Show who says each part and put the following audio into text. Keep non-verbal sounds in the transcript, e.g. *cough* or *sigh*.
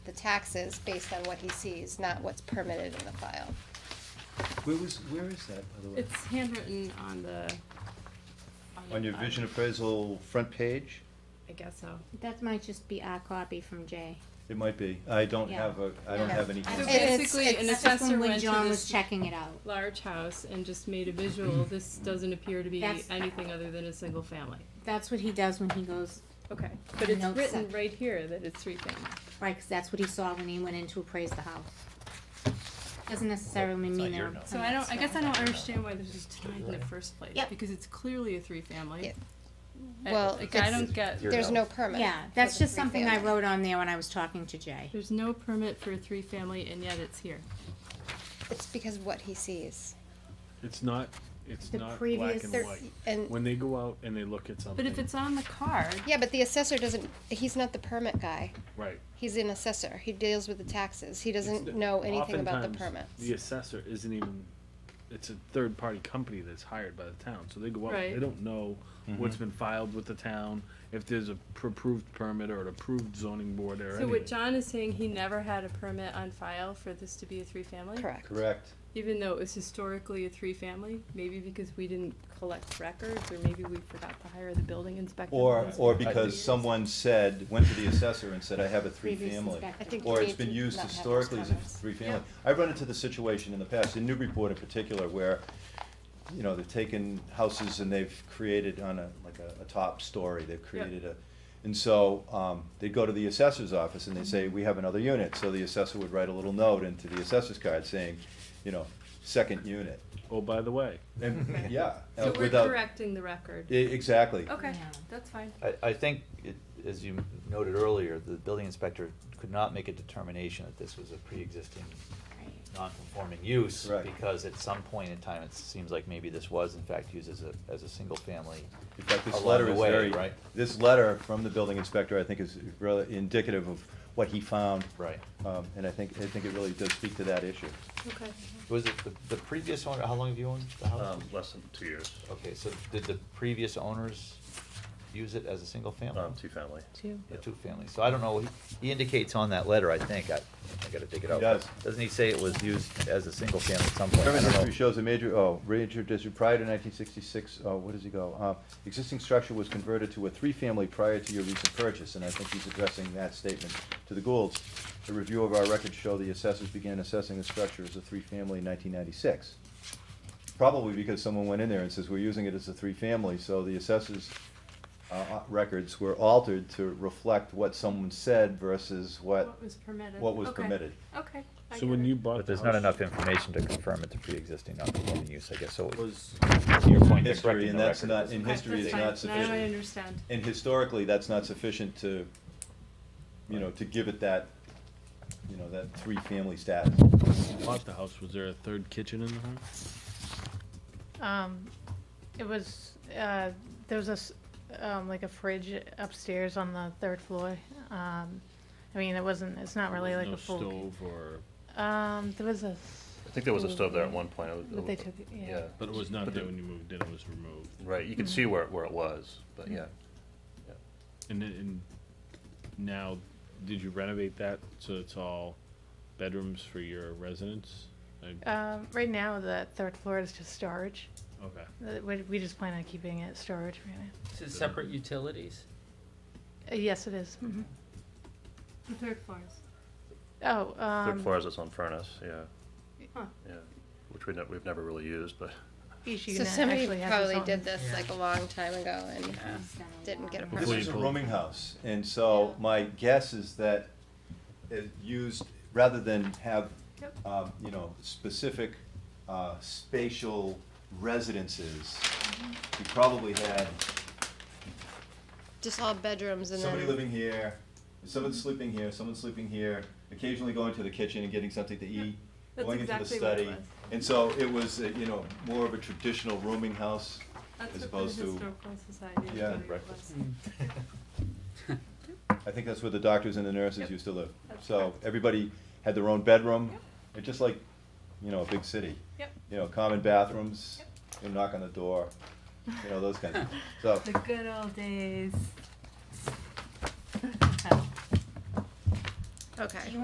Speaker 1: taxes based on what he sees, not what's permitted in the file.
Speaker 2: Where was, where is that, by the way?
Speaker 3: It's handwritten on the. the
Speaker 2: On your
Speaker 3: file.
Speaker 2: vision appraisal front page?
Speaker 3: I guess so.
Speaker 4: That might just be our copy from Jay.
Speaker 2: It might be. I don't
Speaker 4: Yeah.
Speaker 2: have a, I don't
Speaker 1: Yeah.
Speaker 2: have any.
Speaker 4: So
Speaker 3: So
Speaker 1: It's- it's-
Speaker 3: basically, an
Speaker 1: it's-
Speaker 4: That's
Speaker 3: assessor
Speaker 4: from when
Speaker 3: went to
Speaker 4: John was
Speaker 3: this
Speaker 4: checking it out.
Speaker 3: large house and just made
Speaker 2: *clears throat*
Speaker 3: a visual, this doesn't appear to be
Speaker 4: That's-
Speaker 3: anything other than a single family.
Speaker 4: That's what he does when he goes,
Speaker 3: Okay, but it's
Speaker 4: No,
Speaker 3: written
Speaker 4: except-
Speaker 3: right here that it's three family.
Speaker 4: right, 'cause that's what he saw when he went in to appraise the house. Doesn't necessarily
Speaker 5: It's not
Speaker 4: mean
Speaker 5: your
Speaker 4: they're.
Speaker 5: note.
Speaker 3: So I don't, I guess I don't understand why this was denied in the first place,
Speaker 4: Yep.
Speaker 3: because it's clearly a three family.
Speaker 1: Yeah. Well,
Speaker 3: Like, I
Speaker 1: it's-
Speaker 3: don't get,
Speaker 2: Your
Speaker 1: There's no
Speaker 2: note.
Speaker 1: permit.
Speaker 4: Yeah,
Speaker 1: for
Speaker 4: that's
Speaker 1: the
Speaker 4: just something I
Speaker 1: three-family.
Speaker 4: wrote on there when I was talking to Jay.
Speaker 3: there's no permit for a three family and yet it's here.
Speaker 1: It's because of what he sees.
Speaker 6: It's not, it's
Speaker 4: The
Speaker 6: not
Speaker 4: previous-
Speaker 6: black and
Speaker 1: There-
Speaker 6: white.
Speaker 1: And,
Speaker 6: When they go out and they look at
Speaker 3: But
Speaker 6: something.
Speaker 3: if it's on the card,
Speaker 1: yeah, but the assessor doesn't, he's not the permit guy.
Speaker 6: Right.
Speaker 1: He's an assessor. He deals with the taxes. He
Speaker 6: It's-
Speaker 1: doesn't know anything about the
Speaker 6: oftentimes,
Speaker 1: permits.
Speaker 6: The assessor isn't even, it's a third-party company that's hired by the town, so they go out,
Speaker 3: Right.
Speaker 6: they don't know
Speaker 5: Mm-hmm.
Speaker 6: what's been filed with the town, if there's a pr- approved permit or an approved zoning board or
Speaker 3: so what
Speaker 6: anything.
Speaker 3: John is saying, he never had a permit on file for this to be a three family?
Speaker 1: Correct.
Speaker 2: Correct.
Speaker 3: Even though it was historically a three-family, maybe because we didn't collect records, or maybe we forgot to hire the building inspector.
Speaker 2: Or,
Speaker 3: once
Speaker 2: or
Speaker 3: we did
Speaker 2: because
Speaker 3: it.
Speaker 2: someone said, went to the assessor and said, I have a
Speaker 4: Previous
Speaker 2: three-family.
Speaker 4: inspector.
Speaker 1: I think
Speaker 2: Or
Speaker 1: we
Speaker 2: it's
Speaker 1: need
Speaker 2: been
Speaker 1: to
Speaker 2: used
Speaker 1: not have those
Speaker 2: historically as a
Speaker 1: comments.
Speaker 2: three-family. I've run into the situation in the past, in Newburyport in particular, where, you know, they've taken houses and they've created on a, like a, a top story, they've created a, and so, um, they go to the assessor's office and they say, we have another unit, so the assessor would write a little note into the assessor's card saying, you know, second unit.
Speaker 6: Oh, by the way,
Speaker 2: And, yeah. uh,
Speaker 3: So we're
Speaker 2: without-
Speaker 3: correcting the record.
Speaker 2: e- Exactly.
Speaker 3: Okay,
Speaker 4: Yeah.
Speaker 3: that's fine.
Speaker 5: I, I think, it- as you noted earlier, the building inspector could not make a determination that this was a pre-existing
Speaker 4: Right.
Speaker 5: non-conforming use.
Speaker 2: Right.
Speaker 5: Because at some point in time, it seems like maybe this was in fact used as a, as a single-family.
Speaker 2: In fact, this
Speaker 5: along
Speaker 2: letter
Speaker 5: the
Speaker 2: is
Speaker 5: way,
Speaker 2: very,
Speaker 5: Right,
Speaker 2: this letter from the building inspector, I think, is really indicative of what he found.
Speaker 5: right.
Speaker 2: Um, and I think, I think it really does speak to that issue.
Speaker 3: Okay.
Speaker 5: Was it the, the previous owner, how long have you owned the house?
Speaker 7: Um, less than two years,
Speaker 5: Okay, so did the previous owners use it as a single-family?
Speaker 7: um, two-family.
Speaker 3: Two.
Speaker 5: A two-family, so I don't know, he- he indicates on that letter, I think, I, I gotta dig it
Speaker 2: He
Speaker 5: out.
Speaker 2: does.
Speaker 5: Doesn't he say it was used as a single-family at some point? I
Speaker 2: Permit
Speaker 5: don't know.
Speaker 2: history shows a major, oh, major district prior to nineteen sixty-six, oh, what does he go? Uh, existing structure was converted to a three-family prior to your recent purchase, and I think he's addressing that statement to the Goulds. A review of our records show the assessors began assessing the structure as a three-family in nineteen ninety-six. Probably because someone went in there and says, we're using it as a three-family, so the assessors, uh, uh, records were altered to reflect what someone said versus what,
Speaker 3: What was permitted?
Speaker 2: what was
Speaker 3: Okay.
Speaker 2: permitted.
Speaker 3: Okay. I
Speaker 6: so
Speaker 3: get
Speaker 6: when
Speaker 3: it.
Speaker 6: you bought.
Speaker 5: But
Speaker 6: the
Speaker 5: there's not
Speaker 6: house,
Speaker 5: enough information to confirm it's a pre-existing non-conforming use, I guess, so it
Speaker 6: Was,
Speaker 5: to your point, they're
Speaker 2: History,
Speaker 5: correcting
Speaker 2: and
Speaker 5: the
Speaker 2: that's
Speaker 5: record.
Speaker 2: not, in
Speaker 3: Okay,
Speaker 2: history
Speaker 3: that's
Speaker 2: is
Speaker 3: fine.
Speaker 2: not sufficient.
Speaker 3: Now I understand.
Speaker 2: And historically, that's not sufficient to, you know, to give it that, you know, that three-family status.
Speaker 6: when you bought the house, was there a third kitchen in the house?
Speaker 8: Um, it was, uh, there was a, s- um, like a fridge upstairs on the third floor. Um, I mean, it wasn't, it's not really
Speaker 6: There
Speaker 8: like
Speaker 6: was
Speaker 8: a full.
Speaker 6: No stove or,
Speaker 8: Um, there was a.
Speaker 7: I think there was a stove there at one point. It was-
Speaker 8: But they took it, yeah. Mm-hmm.
Speaker 6: but it was not
Speaker 7: But
Speaker 6: there
Speaker 7: the-
Speaker 6: when you moved in, it was removed.
Speaker 7: Right, you could see where, where it was, but yeah.
Speaker 6: And, then- and now, did you renovate that so it's all bedrooms for your residents? I-
Speaker 8: Um, right now, the third floor is just storage.
Speaker 6: Okay.
Speaker 8: Uh, We, we just plan on keeping it storage right now.
Speaker 9: This is separate utilities.
Speaker 8: Uh, yes, it is. mhm.
Speaker 3: The third floors.
Speaker 8: Oh,
Speaker 7: Third
Speaker 8: um,
Speaker 7: floor has its own furnace, yeah,
Speaker 3: Huh.
Speaker 7: yeah, which we, ne- we've never really used, but
Speaker 8: each
Speaker 1: So
Speaker 8: unit
Speaker 1: somebody
Speaker 8: actually has its
Speaker 1: probably
Speaker 8: own.
Speaker 1: did this
Speaker 9: Yeah.
Speaker 1: like a long time ago and
Speaker 4: He's done a
Speaker 1: didn't
Speaker 4: lot.
Speaker 1: get a
Speaker 7: Yeah,
Speaker 2: This
Speaker 1: permit.
Speaker 2: is a rooming house, and so my guess is that it used, rather than have,
Speaker 8: Yep.
Speaker 2: um, you know, specific, uh, spatial residences, you probably had
Speaker 1: Just all bedrooms and
Speaker 2: somebody
Speaker 1: then,
Speaker 2: living here, someone sleeping here, someone sleeping here, occasionally going to the kitchen and getting something to eat,
Speaker 3: That's
Speaker 2: going into the
Speaker 3: exactly what it
Speaker 2: study.
Speaker 3: was.
Speaker 2: And so it was, uh, you know, more of a traditional rooming house.
Speaker 3: That's
Speaker 2: As
Speaker 3: what
Speaker 2: opposed
Speaker 3: the
Speaker 2: to-
Speaker 3: historical society. is
Speaker 2: Yeah.
Speaker 3: doing with
Speaker 2: Breakfast.
Speaker 3: us.
Speaker 2: I think that's where the doctors and the nurses
Speaker 3: Yep.
Speaker 2: used to live.
Speaker 3: That's
Speaker 2: So
Speaker 3: correct.
Speaker 2: everybody had their own bedroom,
Speaker 3: Yep.
Speaker 2: It's just like, you know, a big city.
Speaker 3: *laughs* Yep.
Speaker 2: You know, common bathrooms, you knock on the door, you know, those
Speaker 3: *laughs*
Speaker 2: kinds of, so.
Speaker 3: The good old *laughs* days.
Speaker 1: okay.